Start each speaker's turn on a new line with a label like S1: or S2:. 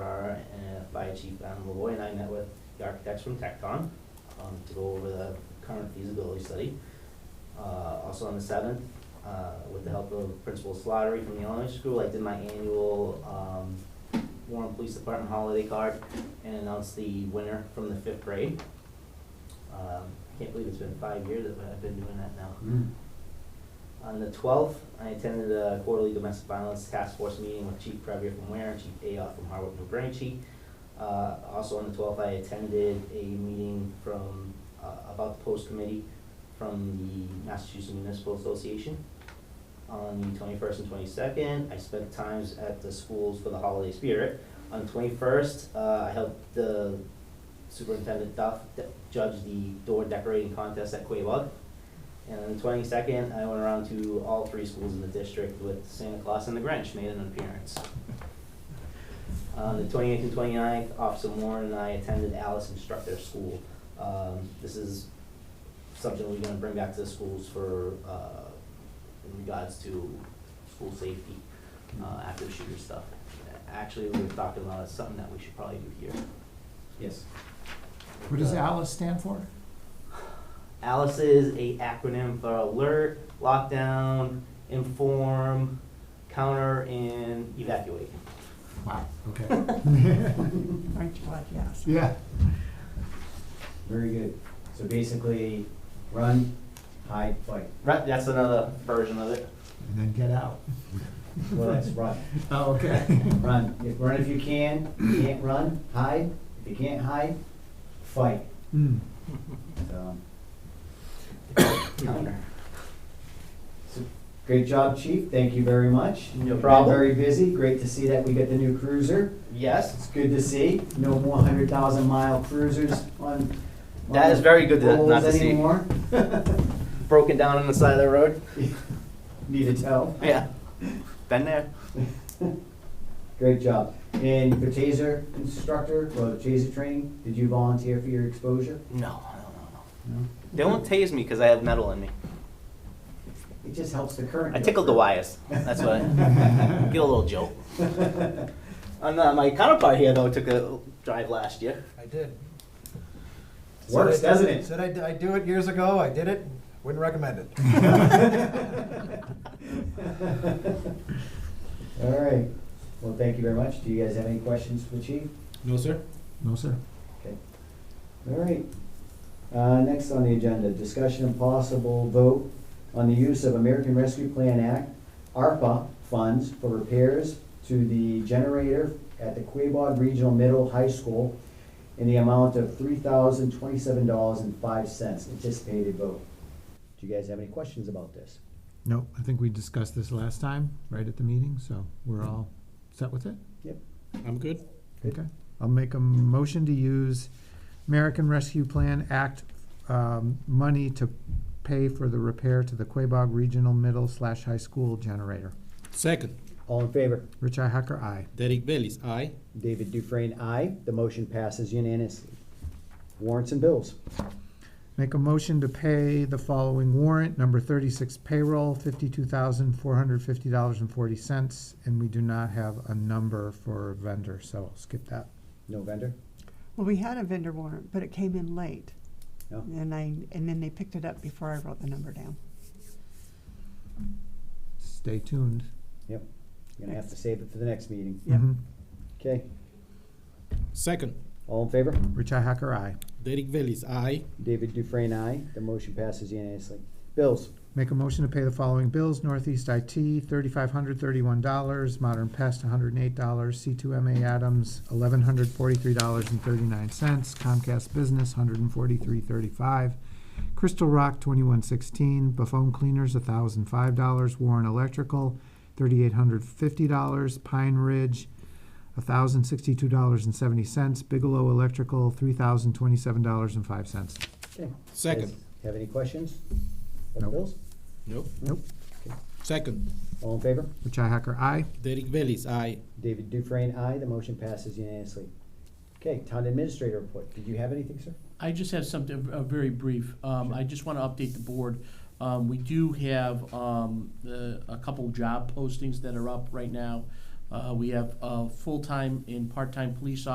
S1: Fire Chief Adam Lavoy and I met with the architects from Tecton um, to go over the current feasibility study. Uh, Also on the seventh, uh, with the help of Principal Slattery from the elementary school, I did my annual um, Warren Police Department holiday card and announced the winner from the fifth grade. Um, I can't believe it's been five years that I've been doing that now.
S2: Mm.
S1: On the twelfth, I attended a quarterly domestic violence task force meeting with Chief Previa from Ware and Chief Ayoff from Harwood, New Braintree. Uh, also on the twelfth, I attended a meeting from, uh, about the post committee from the Massachusetts Municipal Association. On the twenty-first and twenty-second, I spent times at the schools for the holiday spirit. On twenty-first, uh, I helped the Superintendent Duff de- judge the door decorating contest at Quabog. And on the twenty-second, I went around to all three schools in the district with Santa Claus and the Grinch made an appearance. On the twenty-eighth and 29th, Officer Warren and I attended Alice Instructor School. Um, this is something we're gonna bring back to the schools for, uh, in regards to school safety, uh, after the shooter stuff. Actually, we were talking about it's something that we should probably do here.
S2: Yes.
S3: What does
S1: Uh,
S3: ALICE stand for?
S1: ALICE is a acronym for alert, lockdown, inform, counter, and evacuate.
S3: Wow, okay.
S4: Aren't you glad you asked?
S3: Yeah,
S2: Very good. So basically, run, hide, fight.
S1: Right, that's another version of it.
S3: and then get out.
S2: Well, that's run.
S3: Oh, okay.
S2: Run. If, run if you can. If you can't run, hide. If you can't hide, fight.
S3: Hmm.
S2: So,
S1: Counter.
S2: so great job, Chief. Thank you very much.
S1: No
S2: You've been
S1: problem.
S2: Very busy. Great to see that we get the new cruiser.
S1: Yes,
S2: It's good to see. No more hundred thousand mile cruisers on.
S1: That
S2: on
S1: is very good to-
S2: roads
S1: not to see.
S2: anymore.
S1: broken down on the side of the road.
S2: Need to tell.
S1: Yeah, been there.
S2: Great job. And for taser instructor, well, taser training, did you volunteer for your exposure?
S1: No, no, no, no.
S2: No.
S1: They won't tase me because I have metal in me.
S2: It just helps the current.
S1: I tickled the wires. That's what. I, get a little joke. And uh, my counterpart here though took a drive last year.
S5: I did.
S2: Works,
S5: Said I-
S2: doesn't it?
S5: Said I, d- I do it years ago, I did it, wouldn't recommend it.
S2: All right. Well, thank you very much. Do you guys have any questions for the chief?
S6: No, sir.
S3: No, sir.
S2: Okay. All right. Uh, next on the agenda, discussion and possible vote on the use of American Rescue Plan Act, ARPA funds for repairs to the generator at the Quabog Regional Middle High School in the amount of three thousand twenty-seven dollars and five cents, anticipated vote. Do you guys have any questions about this?
S3: No, I think we discussed this last time, right at the meeting, so we're all set with it?
S2: Yep.
S6: I'm good.
S2: Good.
S3: Okay. I'll make a motion to use American Rescue Plan Act um, money to pay for the repair to the Quabog Regional Middle slash High School generator.
S6: Second,
S2: All in favor?
S3: Rich Hacker, aye.
S6: Derek Bellis, aye.
S2: David Dufresne, aye. The motion passes unanimously. Warrants and bills.
S3: Make a motion to pay the following warrant, number thirty-six payroll, fifty-two thousand, four hundred fifty dollars and forty cents, and we do not have a number for vendor, so I'll skip that.
S2: No vendor?
S4: Well, we had a vendor warrant, but it came in late.
S2: No.
S4: And I, and then they picked it up before I wrote the number down.
S3: Stay tuned.
S2: Yep. You're gonna have to save it for the next meeting.
S4: Yep.
S3: Mhm.
S2: Okay,
S6: Second,
S2: all in favor?
S3: Richi Hacker, aye.
S6: Derek Bellis, aye.
S2: David Dufresne, aye. The motion passes unanimously. Bills,
S3: Make a motion to pay the following bills, Northeast IT, thirty-five hundred thirty-one dollars, Modern Pest, hundred and eight dollars, C two MA Adams, eleven hundred forty-three dollars and thirty-nine cents, Comcast Business, hundred and forty-three thirty-five, Crystal Rock, twenty-one sixteen, Buffon Cleaners, thousand five dollars, Warren Electrical, thirty-eight hundred fifty dollars, Pine Ridge, thousand sixty-two dollars and seventy cents, Bigelow Electrical, three thousand twenty-seven dollars and five cents.
S2: okay.
S6: Second.
S2: Guys, Have any questions? on the
S3: Nope.
S2: bills?
S6: Nope.
S3: Nope.
S6: Second,
S2: All in favor?
S3: Richi Hacker, aye.
S6: Derek Bellis, aye.
S2: David Dufresne, aye. The motion passes unanimously. Okay, town administrator report. Did you have anything, sir?
S7: I just have something, uh, very brief. Um, I just want to update the board. Um, we do have, um, the, a couple job postings that are up right now. Uh, we have, uh, full-time and part-time police